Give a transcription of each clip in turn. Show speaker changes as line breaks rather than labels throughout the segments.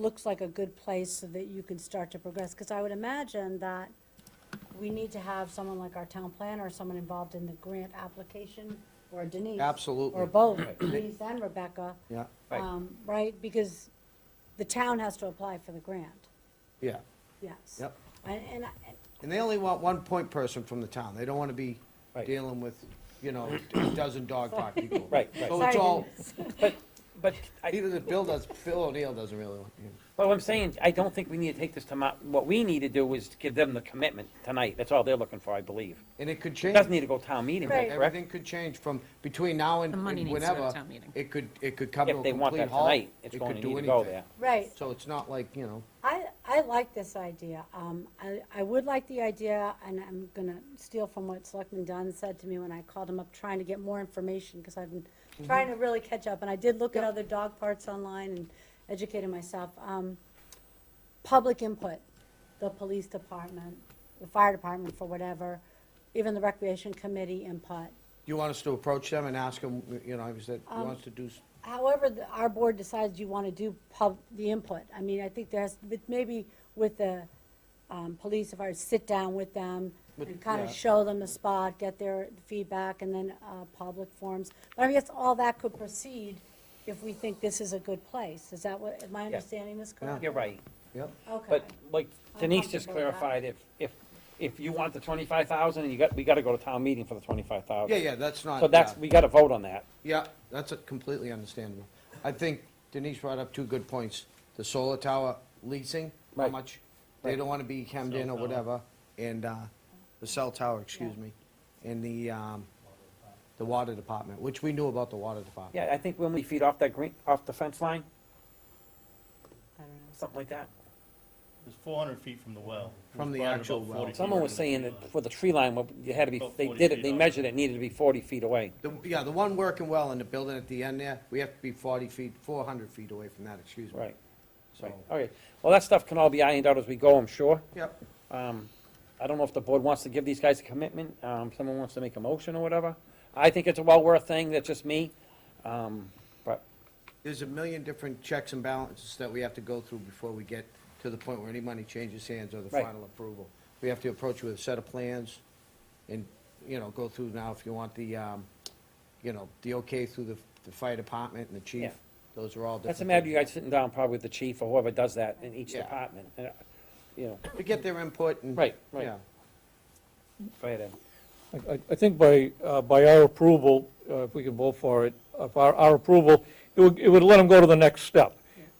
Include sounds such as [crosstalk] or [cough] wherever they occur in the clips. looks like a good place so that you can start to progress? Because I would imagine that we need to have someone like our town planner, or someone involved in the grant application, or Denise.
Absolutely.
Or both, Denise and Rebecca.
Yeah,
Right.
um, Right, because the town has to apply for the grant,
yeah,
yes.
yep.
And, and I-
And they only want one point person from the town. They don't want to be
Right.
dealing with, you know, a
[coughs]
dozen dog park people.
Right, right.
So it's
Sorry,
all,
But, but, I,
even if Bill does, Phil O'Neill doesn't really want, you know.
but what I'm saying, I don't think we need to take this to mo- what we need to do is to give them the commitment tonight, that's all they're looking for, I believe.
and it could
It
change.
doesn't need to go town meeting,
Right.
right, correct?
Everything could change from, between now and
The money
and
needs to go to
whenever.
town meeting.
It could, it could come to
If
a
they want
complete
that
halt.
tonight, it's
It
going
could
to
do
need to go
anything.
there.
Right.
So it's not like, you know,
I, I like this idea. Um, I, I would like the idea, and I'm gonna steal from what Selectman Dunn said to me when I called him up, trying to get more information, because I've been trying to really catch up, and I did look at other dog parts online and educated myself. Um, public input, the police department, the fire department for whatever, even the recreation committee input.
you want us to approach them and ask them, you know, is that,
Um,
you want us to do, s-
However, the- our board decides you want to do pub, the input, I mean, I think there's, but maybe with the um, police, if I sit down with them and
With-
kind
yeah.
of show them the spot, get their feedback, and then uh, public forums. But I guess all that could proceed if we think this is a good place. Is that what, am I understanding this correctly?
You're
[laughs]
right,
yep,
Okay,
but like Denise just
comfortable with that.
clarified, if, if, if you want the twenty-five thousand, you got, we gotta go to town meeting for the twenty-five
yeah,
thousand.
yeah, that's not.
So that's,
yeah.
we gotta vote on that.
Yeah, that's a- completely understandable. I think Denise brought up two good points. The solar tower leasing, how
Right.
much, they
Right.
don't want to be hemmed in or whatever, and uh, the cell tower, excuse me, and the, um, the water department, which we knew about the water department.
Yeah, I think when we feed off that green, off the fence line,
I don't know.
something like that.
It's four hundred feet from the well. It
From
was
the
buried
actual
about
well.
40 feet
Someone
from
was
the
saying
tree
that
line.
for the tree line, well, you had to be,
About
they
40
did it,
feet
they
off.
measured it, it needed to be forty feet away.
The- Yeah, the one working well in the building at the end there, we have to be 40 feet, 400 feet away from that, excuse me.
Right,
So,
right, okay. Well, that stuff can all be ironed out as we go, I'm sure.
yep,
Um, I don't know if the board wants to give these guys a commitment, um, someone wants to make a motion or whatever. I think it's a well worth thing, that's just me. Um, but,
there's a million different checks and balances that we have to go through before we get to the point where any money changes hands or the
Right.
final approval. We have to approach with a set of plans and, you know, go through now if you want the, um, you know, the okay through the, the fire department and the chief.
Yeah.
Those are all different.
that's a matter of you
things.
guys sitting down probably with the chief or whoever does that in each
Yeah.
department, and, uh, you know,
To get their input and.
Right, right.
yeah.
go ahead, Ed.
I- I, I think by, uh, by our approval, uh, if we can vote for it, if our, our approval, it would, it would let them go to the next step.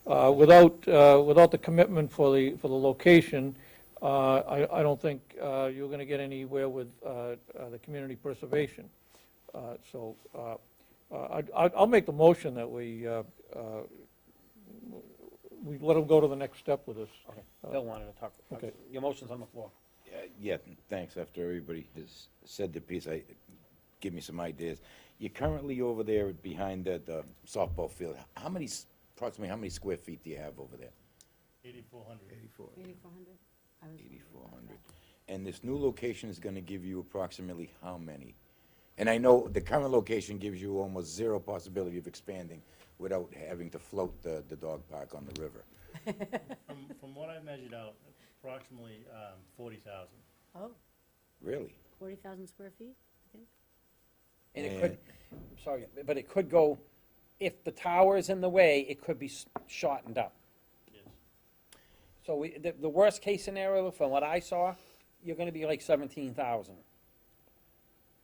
Uh, Without, uh, without the commitment for the, for the location, uh, I, I don't think uh, you're going to get anywhere with uh, uh, the community preservation. Uh, So uh, uh, I, I'll make the motion that we, uh, uh, we let them go to the next step with this.
Okay, Bill wanted to talk.
Okay.
Your motion's on the floor.
Uh, Yeah, thanks, after everybody has said their piece, I, give me some ideas. You're currently over there behind that uh, softball field, how many, s- approximately, how many square feet do you have over there?
8,400.
Eighty-four hundred? I was-
Eighty-four hundred. And this new location is gonna give you approximately how many? And I know the current location gives you almost zero possibility of expanding without having to float the, the dog park on the river.
From, from what I measured out, approximately, um, forty thousand.
Oh,
Really?
forty thousand square feet, I think?
And it could, I'm sorry, but it could go, if the tower is in the way, it could be s- shortened up.
Yes.
So we, the, the worst case scenario, from what I saw, you're gonna be like seventeen thousand.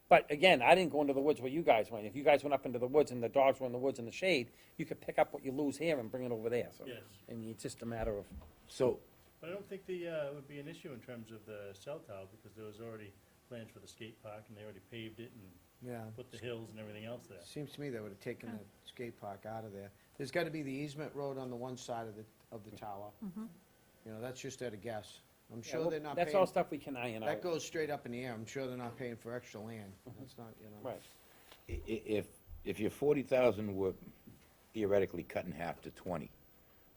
But again, I didn't go into the woods where you guys went. If you guys went up into the woods and the dogs were in the woods in the shade, you could pick up what you lose here and bring it over there, so.
Yes.
I mean, it's just a matter of,
So,
But I don't think the, uh, it would be an issue in terms of the cell tower, because there was already plans for the skate park, and they already paved it and
Yeah.
put the hills and everything else there.
Seems to me they would have taken the skate park out of there. There's got to be the easement road on the one side of the, of the tower. You know, that's just at a guess. I'm
Yeah,
sure
well,
they're not
that's all
paying,
stuff we can iron out.
that goes straight up in the air. I'm sure they're not paying for extra land. That's not, you know.
Right,
i- i- if, if your forty thousand were theoretically cut in half to twenty,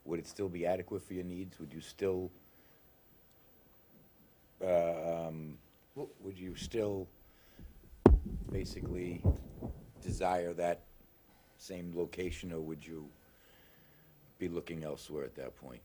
would it still be adequate for your needs? Would you still, uh, um, would you still basically desire that same location, or would you be looking elsewhere at that point?